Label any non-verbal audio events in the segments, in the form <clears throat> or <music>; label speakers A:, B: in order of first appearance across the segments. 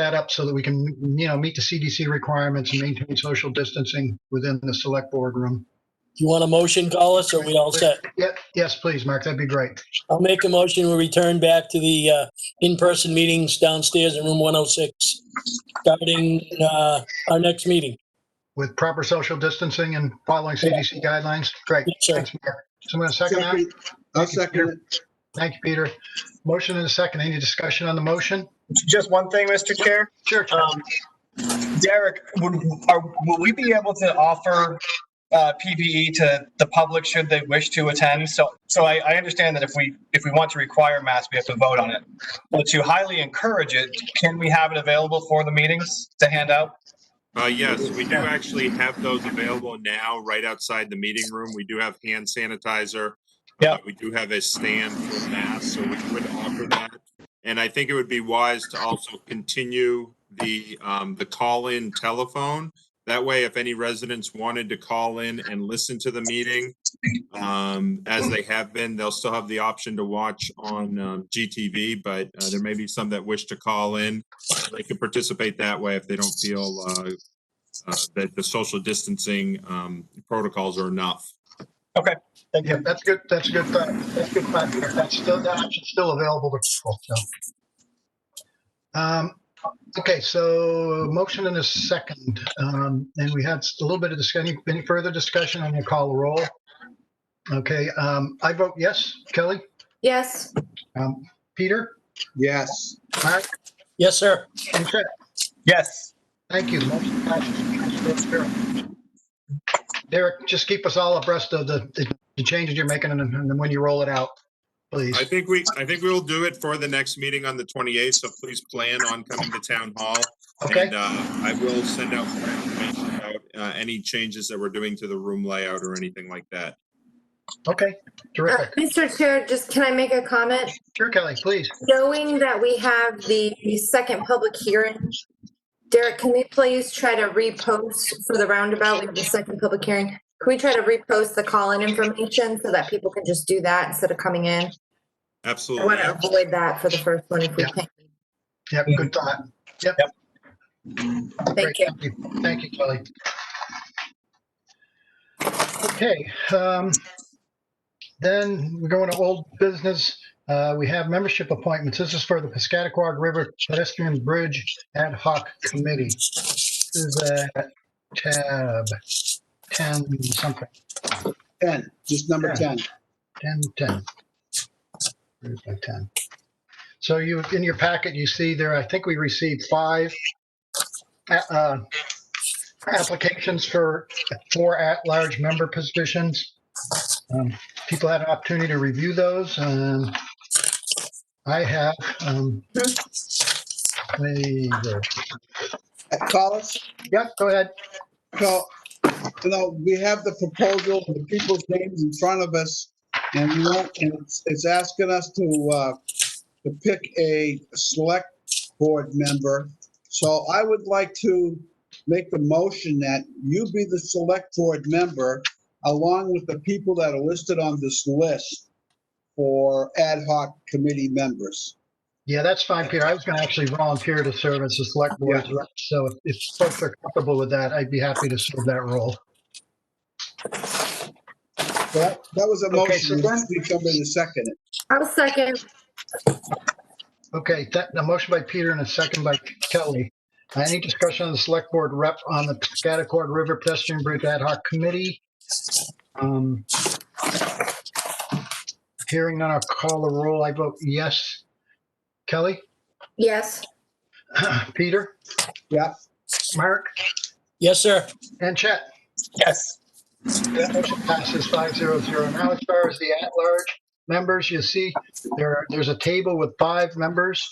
A: that up so that we can, you know, meet the CDC requirements and maintain social distancing within the select board room.
B: You want a motion, Collis, or we all set?
A: Yep, yes, please, Mark, that'd be great.
B: I'll make a motion, we return back to the uh, in-person meetings downstairs in room 106, starting uh, our next meeting.
A: With proper social distancing and following CDC guidelines, great.
B: Yes, sir.
A: Thanks, Mark. Someone second that?
C: I'll second it.
A: Thank you, Peter. Motion and a second. Any discussion on the motion?
D: Just one thing, Mr. Chair.
A: Sure. Chuck.
D: Um, Derek, would, are, will we be able to offer uh, PPE to the public should they wish to attend? So, so I, I understand that if we, if we want to require masks, we have to vote on it. But to highly encourage it, can we have it available for the meetings to hand out?
E: Uh, yes, we do actually have those available now, right outside the meeting room. We do have hand sanitizer.
D: Yeah.
E: Uh, We do have a stand for masks, so we would offer that. And I think it would be wise to also continue the, um, the call-in telephone. That way, if any residents wanted to call in and listen to the meeting, um, as they have been, they'll still have the option to watch on, um, GTV, but, uh, there may be some that wish to call in. They can participate that way if they don't feel, uh, uh, that the social distancing um, protocols are enough.
D: Thank
A: Yeah,
D: you.
A: that's good, that's a good, thought. that's a good thought. Peter. That's still, that option's still available to people, so. Um, okay, so motion and a second, um, and we had a little bit of discussion, any further discussion, I'm gonna call a roll. Okay, um, I vote yes, Kelly,
F: Yes, Uh,
A: um, Peter,
C: Yes.
A: Mark,
B: Yes, sir.
A: and Chris.
D: Yes.
A: Thank you. Motion passes. Derek, just keep us all abreast of the, the- the changes you're making and, and when you roll it out, please.
E: I think we, I think we will do it for the next meeting on the 28th, so please plan on coming to town hall.
A: Okay,
E: And uh, I will send out more information about uh, any changes that we're doing to the room layout or anything like that.
A: okay,
F: Uh,
A: terrific.
F: Mr. Chair, just can I make a comment?
A: Sure, Kelly, please.
F: Knowing that we have the second public hearing, Derek, can we please try to repost for the roundabout, we have the second public hearing? Can we try to repost the call-in information so that people can just do that instead of coming in? I
E: Absolutely.
F: want to avoid that for the first one if we
A: Yeah.
F: can.
A: Yep, good thought. Yep.
F: Thank
A: Great,
F: you.
A: Thank you, Kelly. Okay, um, then we're going to old business. Uh, we have membership appointments. This is for the Piscataquag River Pedestrian Bridge Ad Hoc Committee. This is uh, tab 10 something,
C: 10, just number 10.
A: 10, 10. Where's my 10? So you, in your packet, you see there, I think we received five a- uh, applications for four at-large member positions. Um, People had an opportunity to review those. um, I have. um, they-
C: Collis,
A: Yeah, go ahead.
C: Uh, so, you know, we have the proposal, the people's names in front of us, and we want, and it's- it's asking us to, uh, to pick a select board member. So I would like to make the motion that you be the select board member along with the people that are listed on this list for ad hoc committee members.
A: Yeah, that's fine, Peter. I was going to actually volunteer to serve as a select board. rep, So if- if folks are comfortable with that, I'd be happy to serve that role.
C: That, that was a
A: Okay, so
C: motion.
A: then-
C: We somebody to second it.
F: I'll second.
A: Okay, that, a motion by Peter and a second by Kelly. Uh, Any discussion on the select board rep on the Scotticord River pedestrian bridge ad hoc committee? Um, Hearing none, I'll call the roll. I vote yes. Kelly, <clears throat>
F: Yes,
A: Peter,
C: Yeah,
A: Mark,
B: Yes, sir.
A: and Chet.
D: Yes.
A: That motion passes five zero zero. Now, as far as the at-large members, you see there, there's a table with five members.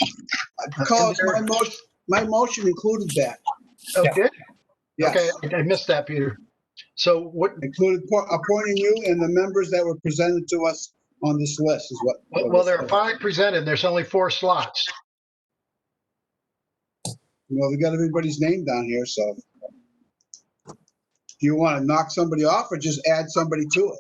C: Carlos, my motion, my motion included that.
A: Oh,
D: Yeah.
A: good.
C: Yes.
A: Okay, I- I missed that, Peter. So what,
C: Included po- appointing you and the members that were presented to us on this list is what.
A: Well, well, there are five presented. There's only four slots.
C: Well, we got everybody's name down here, so. Do you want to knock somebody off or just add somebody to it?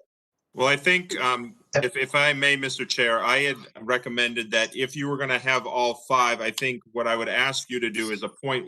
E: Well, I think um, If, if I may, Mr. Chair, I had recommended that if you were going to have all five, I think what I would ask you to do is appoint